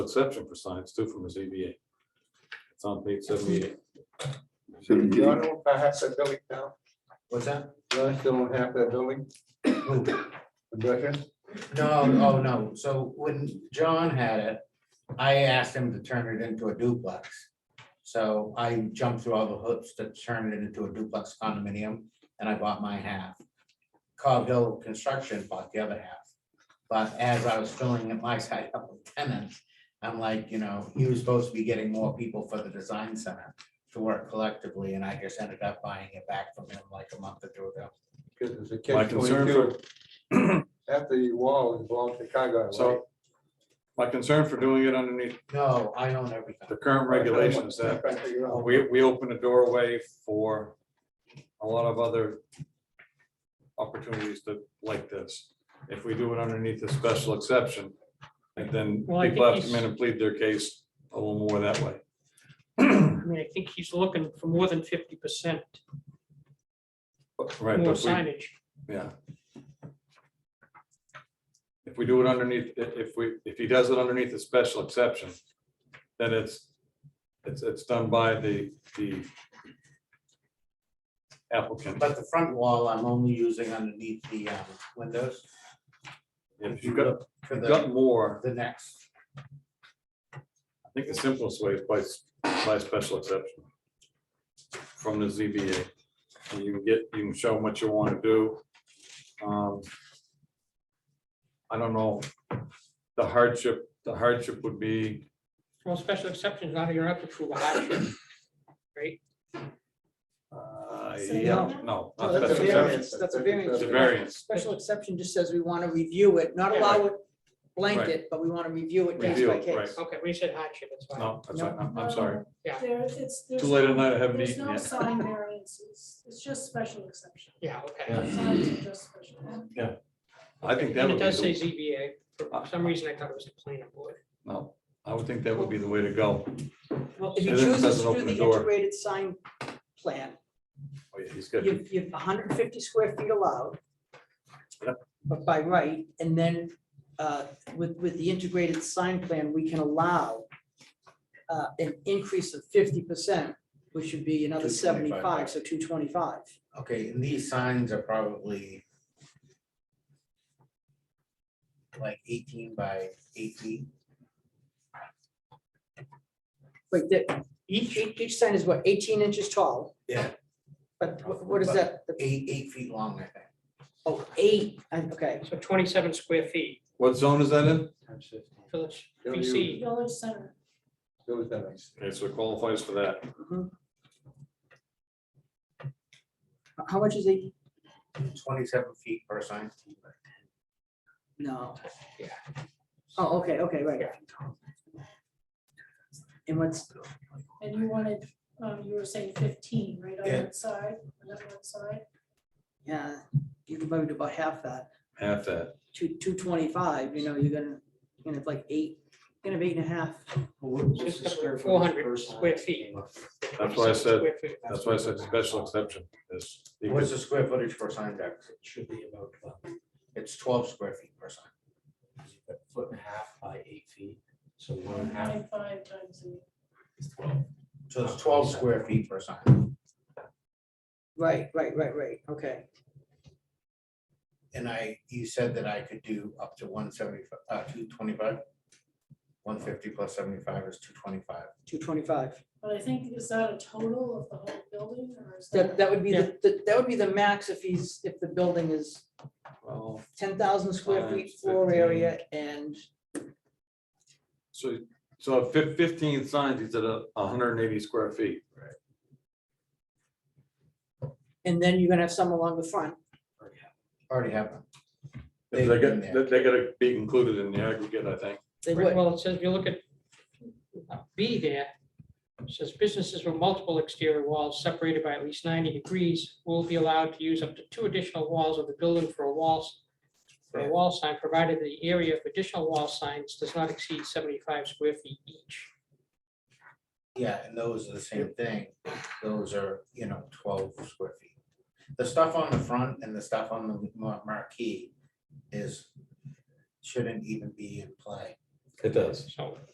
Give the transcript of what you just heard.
exception for signs too from the ZBA. It's on page seventy-eight. Shouldn't You be. don't know if I have that building now? What's that? You don't still don't have that building? Impression? No, oh, no, so when John had it, I asked him to turn it into a duplex. So I jumped through all the hoops to turn it into a duplex condominium, and I bought my half. Cobb Hill Construction bought the other half. But as I was filling up my side up with tenants, I'm like, you know, he was supposed to be getting more people for the design center to work collectively, and I just ended up buying it back from him like a month or two ago. Because it's a My catch concern twenty-two. for, After the wall is blown Chicago. right? so, my concern for doing it underneath No, I own everything. the current regulation is that Trying to figure out. uh, we, we open a doorway for a lot of other opportunities to, like this. If we do it underneath a special exception, and then Well, I people think have to come in and plead their case a little more that way. I mean, I think he's looking for more than fifty percent Right, more but we, signage. Yeah. If we do it underneath, i- if we, if he does it underneath a special exception, then it's, it's, it's done by the, the applicant. But the front wall, I'm only using underneath the um, windows If you've got, for you've the, got more, the next. I think the simplest way is by, s- by special exception from the ZBA. And You can get, you can show them what you want to do. Um, I don't know, the hardship, the hardship would be Well, special exceptions, now you're up to prove a hardship. Uh, So yeah, no. No, not that's a special variance. exception. That's a It's variance. a variance. Special exception just says we want to review it, not allow it blanket, but we want to review it case Review by it, right. case. Okay, we said hardship, that's fine. No, that's right. I'm, I'm sorry. Yeah. There, it's, there's. Too late at night, I haven't There's eaten no yet. sign variances, it's just special exception. Yeah, okay. Yeah. Signs are just special. I think that And would it be, does say the- ZBA. For some reason, I thought it was a planning board. no, I would think that would be the way to go. Well, if And you then it choose doesn't to do open the the door. integrated sign plan, Oh, yeah, He's got, you've, you've hundred and fifty square feet allowed. Yep. But by right, and then uh, with, with the integrated sign plan, we can allow uh, an increase of fifty percent, which would be another 225. seventy-five, so two twenty-five. Okay, and these signs are probably like eighteen by eight feet. Like that, each, each each sign is what, eighteen inches tall, Yeah. but what- what is that? The- Eight, eight feet long, I think. Oh, eight, I- okay. So twenty-seven square feet, what zone is that in? village Don't PC. Village center, It was that nice. Okay, so it qualifies for that. Mm-hmm. How much is eight? Twenty-seven feet per sign. No. Yeah. Oh, okay, okay, right. Yeah. And what's, and you wanted, um, you were saying fifteen, right, on Yeah. that side, on that one side? yeah, you could probably do about half that, Half that. two, two twenty-five, you know, you're gonna, you're gonna have like eight, you're gonna have eight and a half. Four hundred square feet. That's why I 27 said- square feet. That's why I said special exception is. you What's could- the square footage for a sign deck? It should be about twelve. It's twelve square feet per sign. foot and a half by eight feet, so one and a half Nine five times eight. is twelve. So it's twelve square feet per sign. Right, right, right, right, okay. And I, you said that I could do up to one seventy-five, uh, two twenty-five? One fifty plus seventy-five is two twenty-five. Two twenty-five. But I think, is that a total of the whole building, or is That, that? that would be, the the- that would be the max if he's, if the building is Well, ten thousand square feet Times floor 15. area and So, so fif- fifteen signs, he's at a hundred and eighty square feet. And then you're gonna have some along the front. Already have them. They They've got, been there. they they gotta be included in the aggregate, I think. They Right, would, Well, it says, if you look at uh, B there, it says businesses with multiple exterior walls separated by at least ninety degrees will be allowed to use up to two additional walls of the building for a walls, for a wall sign, provided the area of additional wall signs does not exceed seventy-five square feet each. Yeah, and those are the same thing. Those are, you know, twelve square feet. The stuff on the front and the stuff on the mar- marquee is, shouldn't even be in play. It does. So